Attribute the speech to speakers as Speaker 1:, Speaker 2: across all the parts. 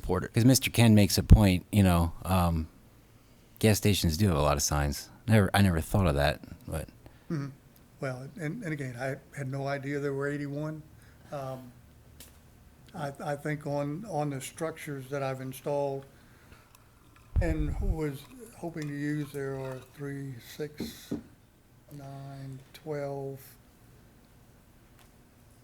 Speaker 1: supporter. Because Mr. Ken makes a point, you know, um, gas stations do have a lot of signs. Never, I never thought of that, but
Speaker 2: Mm-hmm. Well, and, and again, I had no idea there were eighty-one. Um, I, I think on, on the structures that I've installed and was hoping to use, there are three, six, nine, twelve.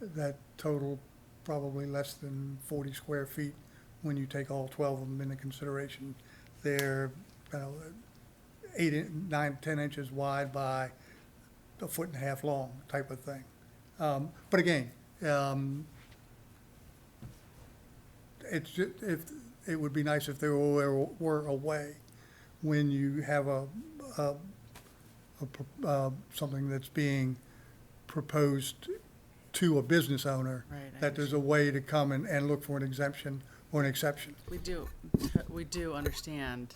Speaker 2: That total probably less than forty square feet when you take all twelve of them into consideration. They're, uh, you know, eight, in- nine, ten inches wide by a foot and a half long type of thing. Um, but again, um, it's, ju- if, it would be nice if there were, were a way when you have a, a, a, pro- uh, something that's being proposed to a business owner,
Speaker 3: Right, I
Speaker 2: that there's a way to come and, and look for an exemption or an exception.
Speaker 3: We do, we do understand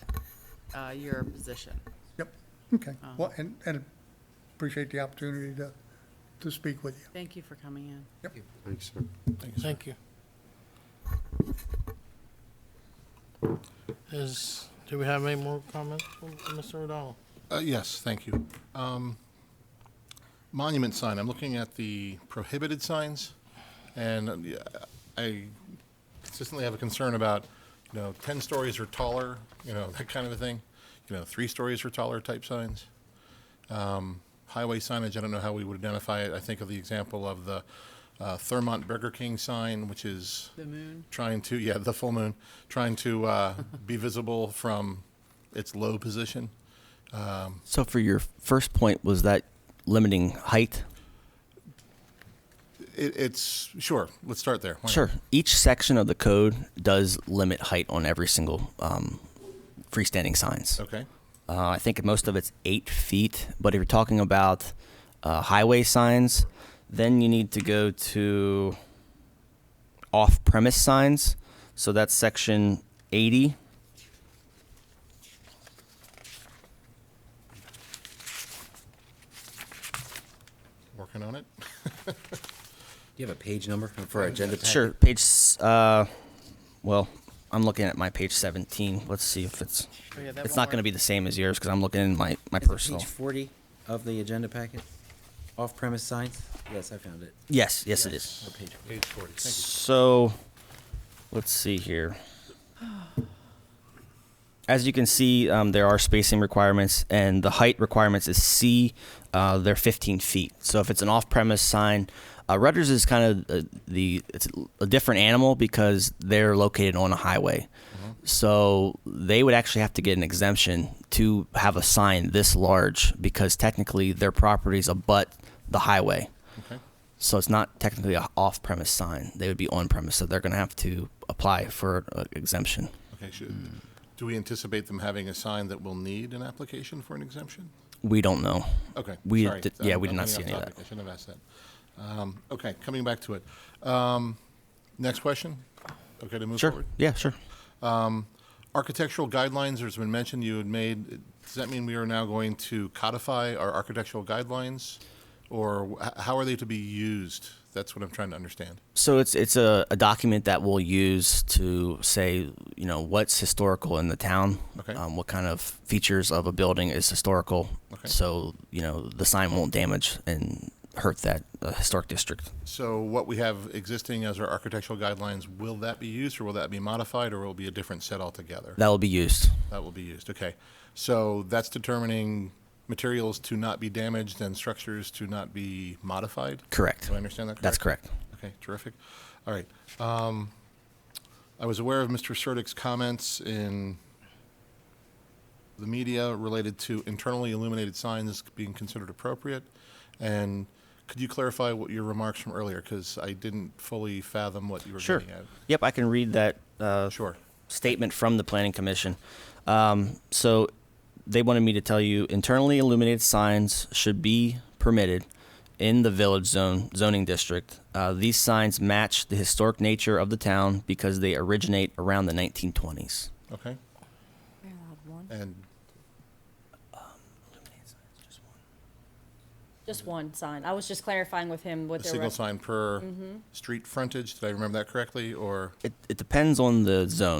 Speaker 3: uh, your position.
Speaker 2: Yep, okay. Well, and, and appreciate the opportunity to, to speak with you.
Speaker 3: Thank you for coming in.
Speaker 4: Thanks, sir.
Speaker 5: Thank you. Is, do we have any more comments from Mr. O'Donnell?
Speaker 3: Oh,
Speaker 6: Uh, Yes, thank you. Um, Monument sign, I'm looking at the prohibited signs, and uh, yeah, I consistently have a concern about, you know, 10 stories or taller, you know, that kind of a thing, you know, three stories or taller type signs. Um, Highway signage, I don't know how we would identify it. I think of the example of the uh, Thurmont Burger King sign, which is
Speaker 3: The moon,
Speaker 6: trying to, yeah, the full moon, trying to uh, be visible from its low position.
Speaker 7: So for your first point was that limiting height?
Speaker 6: It, it's sure. Let's start there. Why not?
Speaker 7: Sure. Each section of the code does limit height on every single um, freestanding signs.
Speaker 6: Okay.
Speaker 7: Uh, I think most of it's eight feet. But if you're talking about uh, highway signs, then you need to go to off premise signs. So that's section 80.
Speaker 6: Working on it.
Speaker 1: do you have a page number for our agenda? packet?
Speaker 7: Sure. Page, s- uh, well, I'm looking at my page 17. Let's see if it's.
Speaker 3: Oh, yeah, that
Speaker 7: It's
Speaker 3: won't
Speaker 7: not going to
Speaker 3: work.
Speaker 7: be the same as yours because I'm looking in my, my
Speaker 1: Is it
Speaker 7: personal.
Speaker 1: Page forty of the agenda packet, off-premise signs? Yes, I found it.
Speaker 7: Yes, yes, it is.
Speaker 1: Or page-
Speaker 6: Page forty. Thank you.
Speaker 7: So, let's see here. As you can see, um, there are spacing requirements, and the height requirements is C. Uh, they're 15 feet. So if it's an off-premise sign, uh, Rutgers is kind of uh, the it's a different animal because they're located on a highway.
Speaker 6: Mm-hmm.
Speaker 7: So they would actually have to get an exemption to have a sign this large because technically their properties abut the highway.
Speaker 6: Okay.
Speaker 7: So it's not technically a off-premise sign. They would be on-premise, so they're going to have to apply for uh, exemption.
Speaker 6: Okay. Should, Do we anticipate them having a sign that will need an application for an exemption?
Speaker 7: We don't know.
Speaker 6: Okay.
Speaker 7: We
Speaker 6: sorry.
Speaker 7: did- yeah,
Speaker 6: I'm-
Speaker 7: we did
Speaker 6: I'm
Speaker 7: not
Speaker 6: getting
Speaker 7: see
Speaker 6: off
Speaker 7: any of
Speaker 6: topic.
Speaker 7: that.
Speaker 6: I shouldn't have asked that. Um, okay. Coming back to it. Um, next question. Okay. To move
Speaker 7: Sure.
Speaker 6: forward.
Speaker 7: Yeah, sure.
Speaker 6: Architectural guidelines. There's been mention you had made. Does that mean we are now going to codify our architectural guidelines, or wh- how are they to be used? That's what I'm trying to understand.
Speaker 7: So it's it's a, a document that we'll use to say you know what's historical in the town,
Speaker 6: Okay.
Speaker 7: um, what kind of features of a building is historical,
Speaker 6: Okay.
Speaker 7: so you know the sign won't damage and hurt that uh, historic district.
Speaker 6: So what we have existing as our architectural guidelines, will that be used or will that be modified or will it be a different set altogether?
Speaker 7: That will be used.
Speaker 6: That will be used, okay. So that's determining materials to not be damaged and structures to not be modified?
Speaker 7: Correct.
Speaker 6: Do I understand that correctly?
Speaker 7: That's correct.
Speaker 6: Okay, terrific. All right. Um, I was aware of Mr. Surtick's comments in the media related to internally illuminated signs being considered appropriate. And could you clarify what your remarks from earlier? Because I didn't fully fathom what you were
Speaker 7: Sure.
Speaker 6: getting at.
Speaker 7: Yep, I can read that uh,
Speaker 6: Sure.
Speaker 7: statement from the planning commission. Um, so they wanted me to tell you internally illuminated signs should be permitted in the village zone zoning district. Uh, these signs match the historic nature of the town because they originate around the 1920s.
Speaker 6: Okay.
Speaker 8: They're allowed one.
Speaker 6: And
Speaker 8: Just one sign. I was just clarifying with him
Speaker 6: a
Speaker 8: what their.
Speaker 6: single
Speaker 8: rec-
Speaker 6: sign per street frontage, did I remember that correctly? Or?
Speaker 7: It, it depends on the zone.